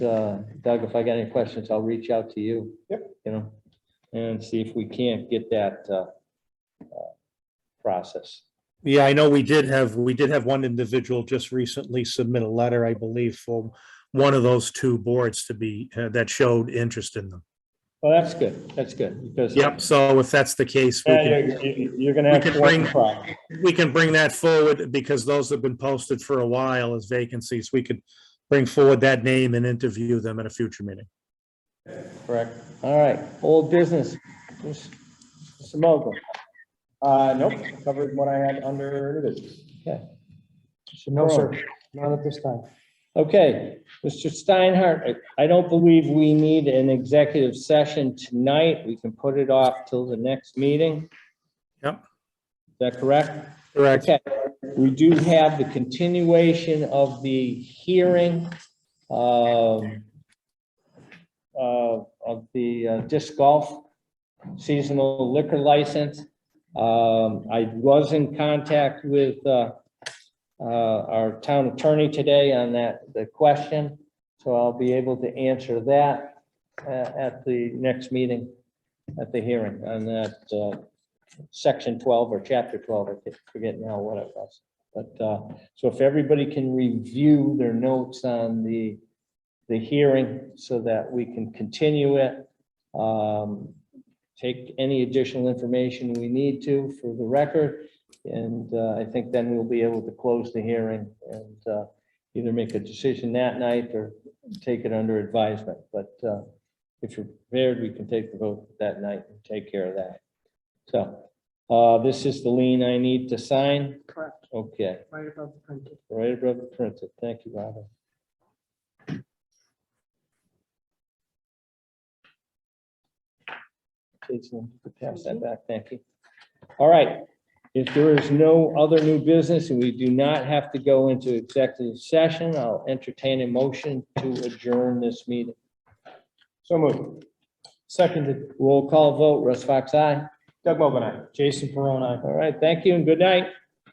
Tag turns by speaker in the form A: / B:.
A: uh, Doug, if I got any questions, I'll reach out to you. Yep. You know, and see if we can't get that uh, uh, process.
B: Yeah, I know we did have, we did have one individual just recently submit a letter, I believe, for one of those two boards to be, uh, that showed interest in them.
A: Well, that's good. That's good because.
B: Yep, so if that's the case, we
A: Yeah,
B: can,
A: You're you- you're gonna
B: we
A: have
B: can
A: to work
B: bring-
A: the problem.
B: we can bring that forward because those have been posted for a while as vacancies. We could bring forward that name and interview them at a future meeting.
A: Correct. All right, old business. Mr. Mokel.
C: Uh, nope, covered what I had under new business.
A: No, sir.
C: Not at this time.
A: Okay, Mr. Steinhardt, I I don't believe we need an executive session tonight. We can put it off till the next meeting.
B: Yep.
A: Is that correct?
B: Correct.
A: Okay, we do have the continuation of the hearing um, uh, of the uh, disc golf seasonal liquor license. Um, I was in contact with uh, uh, our town attorney today on that, the question, so I'll be able to answer that uh, at the next meeting, at the hearing on that uh, section twelve or chapter twelve, I can't- forget now what it was. But, uh, so if everybody can review their notes on the, the hearing so that we can continue it. Um, take any additional information we need to for the record. And, uh, I think then we'll be able to close the hearing and, uh, either make a decision that night or take it under advisement. But, uh, if you're prepared, we can take the vote that night and take care of that. So, uh, this is the lien I need to sign?
D: Correct,
A: Okay,
D: right above the printed.
A: right above the printed. Thank you, Robin. Jason, pass that back. Thank you. All right. If there is no other new business and we do not have to go into executive session, I'll entertain a motion to adjourn this meeting.
C: So moved. Seconded.
A: Roll call vote. Russ Fox, aye.
C: Doug Mogul, aye. Jason Perron, aye.
A: All right, thank you and good night.